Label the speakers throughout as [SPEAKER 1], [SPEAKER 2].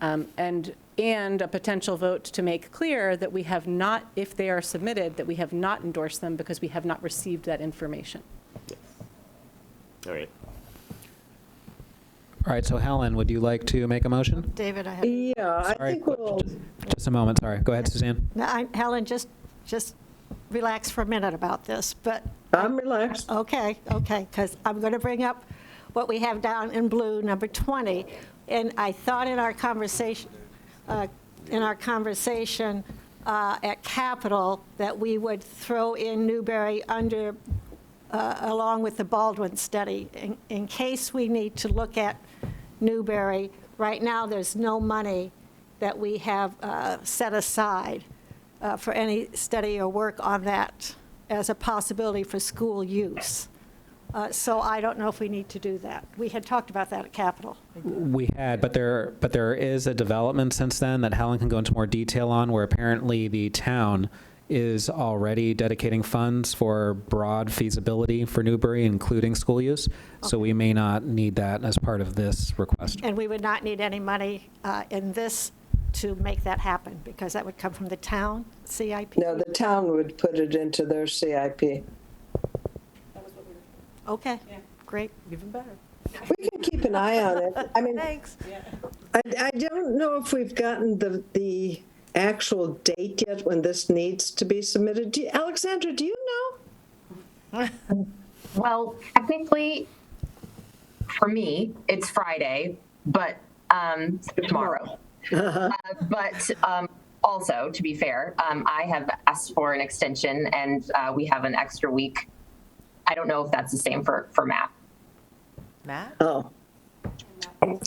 [SPEAKER 1] Um, And, and a potential vote to make clear that we have not, if they are submitted, that we have not endorsed them because we have not received that information.
[SPEAKER 2] All right.
[SPEAKER 3] All right, so Helen, would you like to make a motion?
[SPEAKER 4] David, I have,
[SPEAKER 5] Yeah, I
[SPEAKER 3] Sorry,
[SPEAKER 5] think we'll,
[SPEAKER 3] Just a moment, sorry. Go ahead, Suzanne.
[SPEAKER 4] No, I- Helen, just, just relax for a minute about this, but,
[SPEAKER 5] I'm relaxed.
[SPEAKER 4] okay, okay, because I'm going to bring up what we have down in blue, number 20. And I thought in our conversation, uh, in our conversation uh, at Capitol, that we would throw in Newberry under, uh, along with the Baldwin study, in- in case we need to look at Newberry. Right now, there's no money that we have uh, set aside uh, for any study or work on that as a possibility for school use. Uh, So I don't know if we need to do that. We had talked about that at Capitol.
[SPEAKER 3] We had, but there, but there is a development since then that Helen can go into more detail on, where apparently the town is already dedicating funds for broad feasibility for Newbury, including school use. So we may not need that as part of this request.
[SPEAKER 4] And we would not need any money uh, in this to make that happen, because that would come from the town CIP.
[SPEAKER 5] No, the town would put it into their CIP.
[SPEAKER 4] Okay, great.
[SPEAKER 1] Even better.
[SPEAKER 5] We can keep an eye on it. I mean, I,
[SPEAKER 4] Thanks.
[SPEAKER 5] I don't know if we've gotten the, the actual date yet when this needs to be submitted. Do- Alexandra, do you know?
[SPEAKER 6] Well, technically, for me, it's Friday, but um, tomorrow. Uh, but um, also, to be fair, um, I have asked for an extension, and uh, we have an extra week. I don't know if that's the same for for MAP.
[SPEAKER 7] Matt?
[SPEAKER 5] Oh,
[SPEAKER 8] I'm,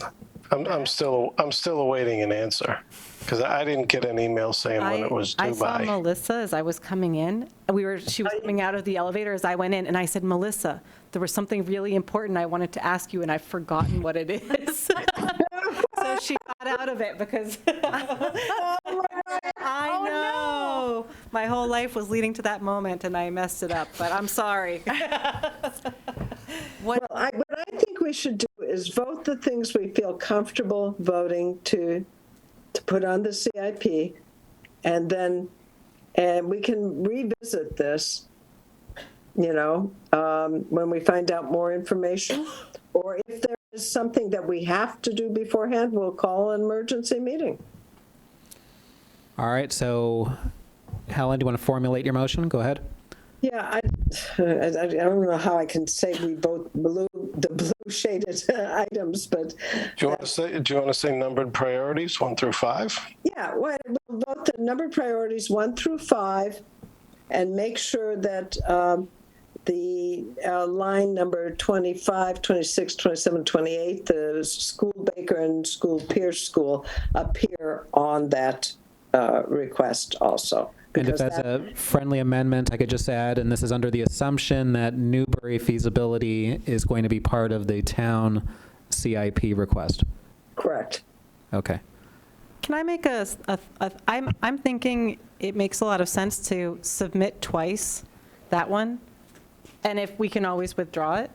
[SPEAKER 8] I'm still, I'm still awaiting an answer, because I didn't get an email saying when it was
[SPEAKER 1] I
[SPEAKER 8] due
[SPEAKER 1] saw
[SPEAKER 8] by.
[SPEAKER 1] Melissa as I was coming in. We were, she was coming out of the elevator as I went in, and I said, Melissa, there was something really important I wanted to ask you, and I've forgotten what it is. So she got out of it because I
[SPEAKER 8] Oh,
[SPEAKER 1] know. My whole life was leading to that moment, and I messed it up, but I'm sorry.
[SPEAKER 5] well, I, what I think we should do is vote the things we feel comfortable voting to, to put on the CIP. And then, and we can revisit this, you know, um, when we find out more information. Or if there is something that we have to do beforehand, we'll call an emergency meeting.
[SPEAKER 3] All right, so Helen, do you want to formulate your motion? Go ahead.
[SPEAKER 5] Yeah, I, I I don't know how I can say we vote blue, the blue shaded items, but
[SPEAKER 8] Do you want to say, do you want to say numbered priorities, one through five?
[SPEAKER 5] Yeah, well, we'll vote the number priorities one through five and make sure that um, the uh, line number 25, 26, 27, 28, the school Baker and school Pierce School appear on that uh, request also.
[SPEAKER 3] And if
[SPEAKER 5] because
[SPEAKER 3] that's
[SPEAKER 5] that-
[SPEAKER 3] a friendly amendment, I could just add, and this is under the assumption that Newbury feasibility is going to be part of the town CIP request.
[SPEAKER 5] Correct.
[SPEAKER 3] Okay.
[SPEAKER 1] Can I make a, s- a- a- I'm, I'm thinking it makes a lot of sense to submit twice, that one, and if we can always withdraw it.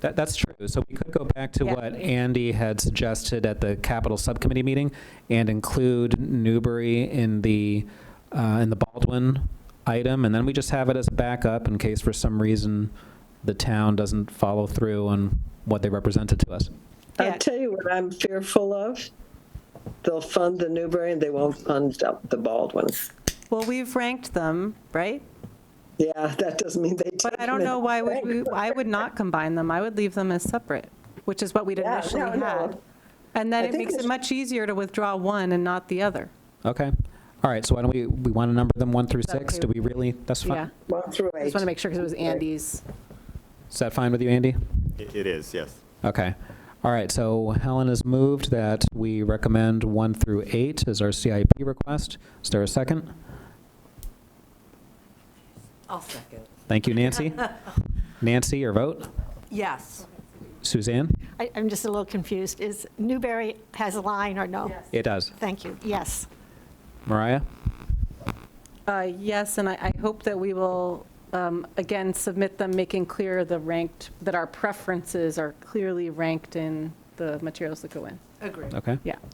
[SPEAKER 3] That, that's true. So we could go back to
[SPEAKER 1] Yeah.
[SPEAKER 3] what Andy had suggested at the capital subcommittee meeting and include Newbury in the, uh, in the Baldwin item, and then we just have it as a backup in case for some reason the town doesn't follow through on what they represented to us.
[SPEAKER 1] Yeah.
[SPEAKER 5] I'll tell you what I'm fearful of. They'll fund the Newberry and they won't fund up the Baldwin.
[SPEAKER 1] Well, we've ranked them, right?
[SPEAKER 5] Yeah, that doesn't mean they.
[SPEAKER 1] But I don't know why would we, I would not combine them. I would leave them as separate, which is what we'd
[SPEAKER 5] Yeah,
[SPEAKER 1] initially
[SPEAKER 5] no, no.
[SPEAKER 1] had. And then
[SPEAKER 5] I
[SPEAKER 1] it
[SPEAKER 5] think
[SPEAKER 1] makes it
[SPEAKER 5] it's-
[SPEAKER 1] much easier to withdraw one and not the other.
[SPEAKER 3] Okay. All right, so why don't we, we want to number them one through
[SPEAKER 1] that
[SPEAKER 3] six?
[SPEAKER 1] okay
[SPEAKER 3] Do
[SPEAKER 1] with
[SPEAKER 3] we really, that's
[SPEAKER 1] Yeah.
[SPEAKER 3] fine?
[SPEAKER 5] One through
[SPEAKER 1] I
[SPEAKER 5] eight.
[SPEAKER 1] just want to make sure because it was Andy's.
[SPEAKER 3] Is that fine with you, Andy?
[SPEAKER 2] It it is, yes.
[SPEAKER 3] Okay. All right, so Helen has moved that we recommend one through eight as our CIP request. Is there a second?
[SPEAKER 7] I'll second.
[SPEAKER 3] Thank you, Nancy. Nancy, your vote.
[SPEAKER 7] Yes.
[SPEAKER 3] Suzanne?
[SPEAKER 4] I- I'm just a little confused. Is Newberry has a line or no?
[SPEAKER 3] It does.
[SPEAKER 4] Thank you, yes.
[SPEAKER 3] Mariah?
[SPEAKER 1] Uh, Yes, and I, I hope that we will, um, again, submit them, making clear the ranked, that our preferences are clearly ranked in the materials that go in.
[SPEAKER 7] Agree.
[SPEAKER 3] Okay.
[SPEAKER 1] Yeah.